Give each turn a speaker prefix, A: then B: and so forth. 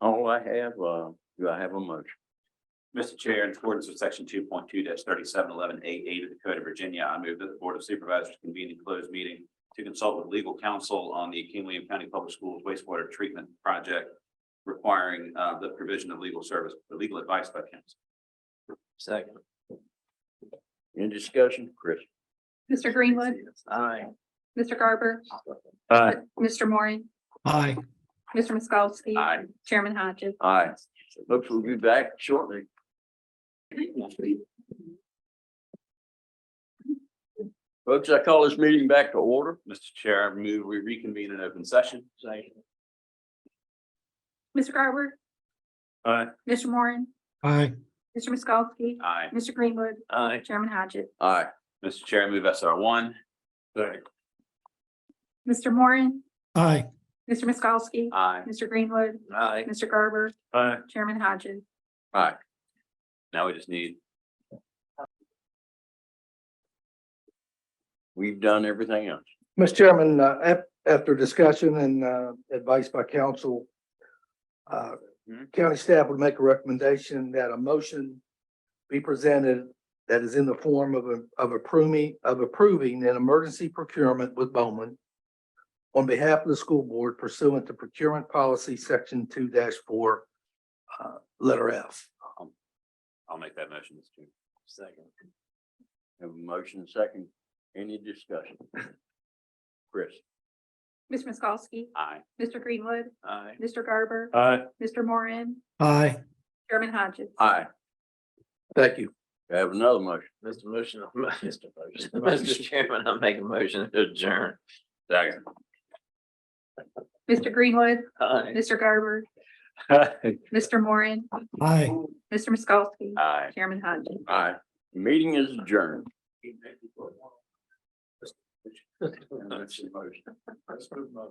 A: All I have, uh, do I have a motion?
B: Mr. Chair, in accordance with section two point two thirty-seven eleven A eight of the Code of Virginia, I move that the Board of Supervisors convene in closed meeting to consult with legal counsel on the King William County Public Schools wastewater treatment project requiring uh, the provision of legal service, legal advice by counsel.
C: Second.
A: Any discussion, Chris?
D: Mr. Greenwood,
C: Aye.
D: Mr. Garber,
A: Aye.
D: Mr. Moore,
E: aye.
D: Mr. Miskowski.
B: Aye.
D: Chairman Hodges.
A: Aye. Folks, we'll be back shortly. Folks, I call this meeting back to order.
B: Mr. Chair, I move we reconvene in open session.
C: Second.
D: Mr. Garber.
A: Aye.
D: Mr. Moore,
E: Aye.
D: Mr. Miskowski,
B: Aye.
D: Mr. Greenwood,
C: Aye.
D: Chairman Hodges.
A: Aye.
B: Mr. Chair, I move SR one.
D: Mr. Moore,
E: Aye.
D: Mr. Miskowski,
B: Aye.
D: Mr. Greenwood,
C: Aye.
D: Mr. Garber,
A: Aye.
D: Chairman Hodges.
A: Aye.
B: Now we just need,
A: We've done everything else.
F: Mr. Chairman, uh, af- after discussion and, uh, advice by council, uh, county staff would make a recommendation that a motion be presented that is in the form of, a- of approving, of approving an emergency procurement with Bowman on behalf of the school board pursuant to procurement policy section two four, uh, letter F.
B: I'll make that motion, Mr. Chair.
C: Second.
A: Have a motion second. Any discussion? Chris?
D: Mr. Miskowski,
B: Aye.
D: Mr. Greenwood,
C: Aye.
D: Mr. Garber,
A: Aye.
D: Mr. Moore,
E: Aye.
D: Chairman Hodges.
A: Aye.
F: Thank you.
A: Do I Have another motion.
C: Mr. Motion, Mr. Motion, Mr. Chairman, I make a motion to adjourn.
B: Second.
D: Mr. Greenwood,
C: Aye.
D: Mr. Garber, Mr. Moore,
E: Aye.
D: Mr. Miskowski,
B: Aye.
D: Chairman Hodges.
A: Aye. Meeting is adjourned.